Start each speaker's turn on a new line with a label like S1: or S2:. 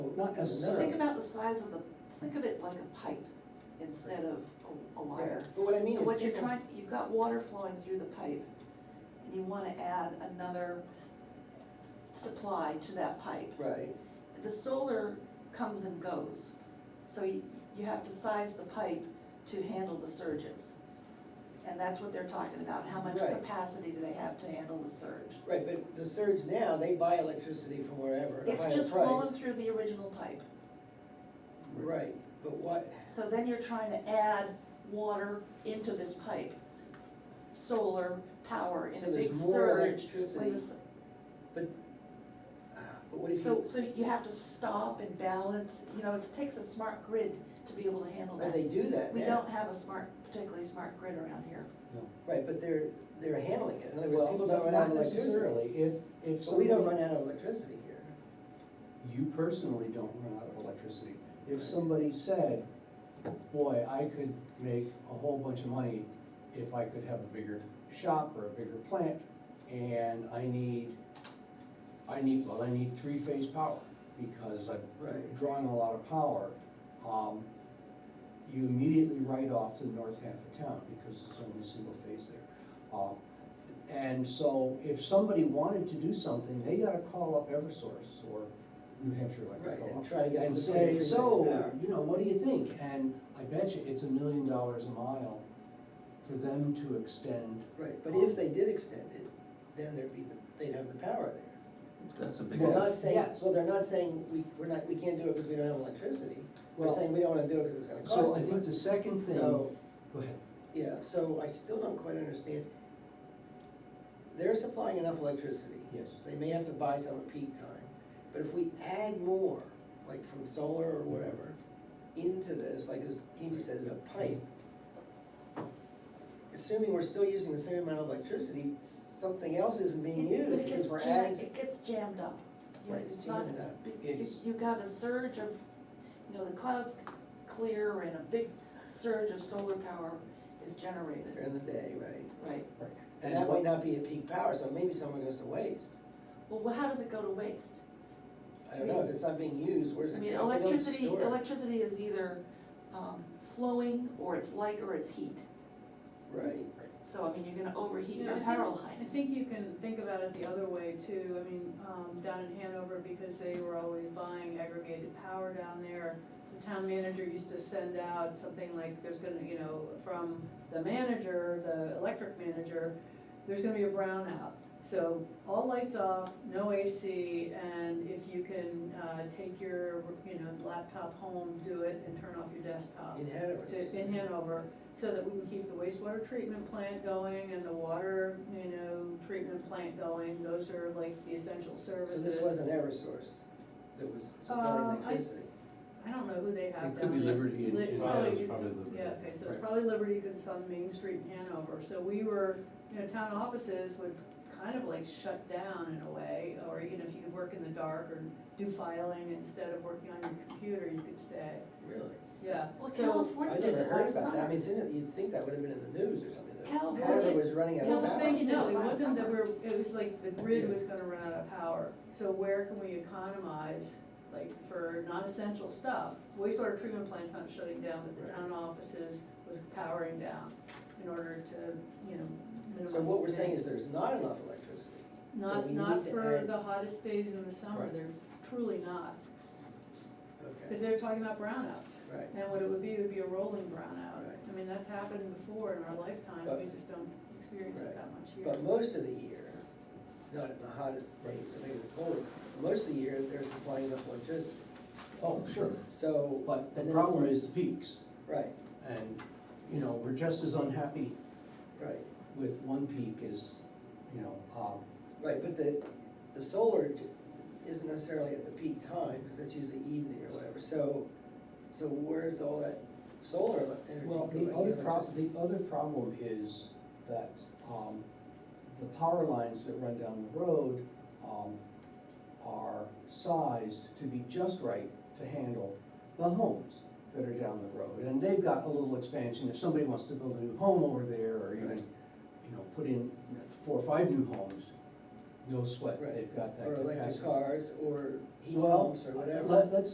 S1: Not
S2: Think
S1: necessarily.
S2: about the size of the, think of it like a pipe instead of a- a wire.
S1: But what I mean
S2: And
S1: is
S2: what you're
S1: people-
S2: trying, you've got water flowing through the pipe, and you wanna add another supply to that pipe.
S1: Right,
S2: The solar comes and goes, so you, you have to size the pipe to handle the surges. And that's what they're talking about, how much
S1: Right.
S2: capacity do they have to handle the surge?
S1: right, but the surge now, they buy electricity from wherever, at a
S2: It's
S1: higher
S2: just flowing
S1: price.
S2: through the original pipe.
S1: Right, but what,
S2: So then you're trying to add water into this pipe, solar power in
S1: So
S2: a
S1: there's
S2: big
S1: more
S2: surge.
S1: electricity.
S2: when this-
S1: but, ah, but what if
S2: So,
S1: you,
S2: so you have to stop and balance, you know, it takes a smart grid to be able to handle
S1: but they
S2: that.
S1: do that
S2: We
S1: now.
S2: don't have a smart, particularly smart grid around here.
S3: No.
S1: Right, but they're, they're handling it, in other words,
S3: Well,
S1: people don't run out of
S3: not
S1: electricity.
S3: necessarily. If, if
S1: But we don't run
S3: somebody,
S1: out of electricity here.
S3: you personally don't run out of electricity.
S1: Right.
S3: If somebody said, boy, I could make a whole bunch of money if I could have a bigger shop or a bigger plant, and I need, I need, well, I need three-phase power, because I'm
S1: Right.
S3: drawing a lot of power. um, You immediately write off to the north half of town, because it's only single phase there. Um, And so if somebody wanted to do something, they gotta call up Eversource or New Hampshire Electric.
S1: Right,
S3: or-
S1: and try to get
S3: And
S1: them to pay
S3: say,
S1: for
S3: so,
S1: things now."
S3: you know, what do you think? And I bet you it's a million dollars a mile for them to extend.
S1: Right, but if they did extend it, then there'd be, the they'd have the power there.
S4: That's a big.
S1: They're
S3: Well,
S1: not saying,
S3: yes.
S1: well, they're not saying, we, we're not, we can't do it because we don't have electricity. They're
S3: Well-
S1: saying we don't wanna do it because it's gonna cost
S3: So I
S1: too
S3: think
S1: much.
S3: the second thing,
S1: So-
S3: go ahead.
S1: Yeah, so I still don't quite understand. They're supplying enough electricity.
S3: Yes.
S1: They may have to buy some at peak time, but if we add more, like from solar or whatever, into this, like as Amy says, a pipe, assuming we're still using the same amount of electricity, something else isn't being
S2: It- but
S1: used
S2: it
S1: because
S2: gets
S1: we're
S2: jam-
S1: adding.
S2: It gets jammed up. You know,
S1: Right, it's
S2: not-
S1: jammed up.
S2: you-
S3: It's-
S2: You got a surge of, you know, the clouds clear and a big surge of solar power is generated,
S1: During the day, right?
S2: right?
S1: And that might not be at peak power, so maybe someone goes to waste.
S2: Well, wh- how does it go to waste?
S1: I don't know, if it's not being used, where's
S2: I
S1: it?
S2: mean,
S1: if they don't
S2: electricity,
S1: store it-
S2: electricity is either um, flowing, or it's light, or it's heat.
S1: Right.
S2: So, I mean, you're gonna overheat
S5: Yeah, I
S2: your
S5: think-
S2: power lines.
S5: I think you can think about it the other way too, I mean, um, down in Hanover, because they were always buying aggregated power down there, the town manager used to send out something like, there's gonna, you know, from the manager, the electric manager, there's gonna be a brownout. So all lights off, no AC, and if you can, uh, take your, you know, laptop home, do it and turn off your desktop
S1: In Hanover.
S5: Um, to, in Hanover, so that we can keep the wastewater treatment plant going and the water, you know, treatment plant going, those are like the essential
S1: So
S5: services.
S1: this wasn't Eversource that was
S5: Um,
S1: supplying
S5: I-
S1: electricity?
S5: I don't know who they have down
S4: It could be
S5: there.
S4: Liberty and-
S5: Li- it's
S4: Yeah,
S5: probably-
S4: it's probably Liberty.
S5: Yeah, okay, so it's
S3: Right.
S5: probably Liberty, because it's on Main Street in Hanover, so we were, you know, town offices would kind of like shut down in a way, or you know, if you could work in the dark or do filing instead of working on your computer, you could stay,
S1: Really?
S5: yeah.
S2: Well,
S5: So-
S2: California
S1: I
S2: did
S1: never
S2: it
S1: heard
S2: last
S1: about that, I mean,
S2: summer.
S1: it's in, it- you'd think that would have been in the news or something, that
S2: California-
S1: Hanover was running out
S5: Well,
S1: of
S5: the thing,
S1: power.
S5: you know, it
S2: Last
S5: wasn't that
S2: summer.
S5: we're, it was like the grid
S1: Yeah.
S5: was gonna run out of power, so where can we economize, like, for non-essential stuff? Wastewater treatment plant's not shutting down, but the
S1: Right.
S5: town offices was powering down in order to, you know, minimize.
S1: So what we're
S5: the
S1: saying is
S5: damage.
S1: there's not enough electricity. So
S5: Not,
S1: we
S5: not
S1: need to
S5: for
S1: add-
S5: the hottest days in the summer,
S1: Right.
S5: they're truly not, cause
S1: Okay,
S5: they're talking about brownouts.
S1: right,
S5: And what it would be, would be a rolling brownout,
S1: Right.
S5: I mean, that's happened before in our lifetime,
S1: But-
S5: we just don't experience
S1: Right.
S5: it that much here.
S1: but most of the year, not in the hottest days, so maybe the coldest, but most of the year, they're supplying enough electricity.
S3: Oh, sure,
S1: So.
S3: but the
S1: and then
S3: problem
S1: for-
S3: is the peaks,
S1: Right,
S3: and, you know, we're just as unhappy
S1: right,
S3: with one peak as, you know, um,
S1: right, but the, the solar j- isn't necessarily at the peak time, because that's usually evening or whatever, so, so where's all that solar ele- energy
S3: Well,
S1: going?
S3: the other
S1: electricity?
S3: problem, the other problem is that, um, the power lines that run down the road, um, are sized to be just right to handle the homes that are down the road. And they've got a little expansion, if somebody wants to build a new home over there, or even,
S1: Right.
S3: you know, put in four or five new homes, no sweat,
S1: Right.
S3: they've got that
S1: Or
S3: capacity.
S1: electric cars, or heat
S3: Well, uh,
S1: pumps, or whatever.
S3: Let, let's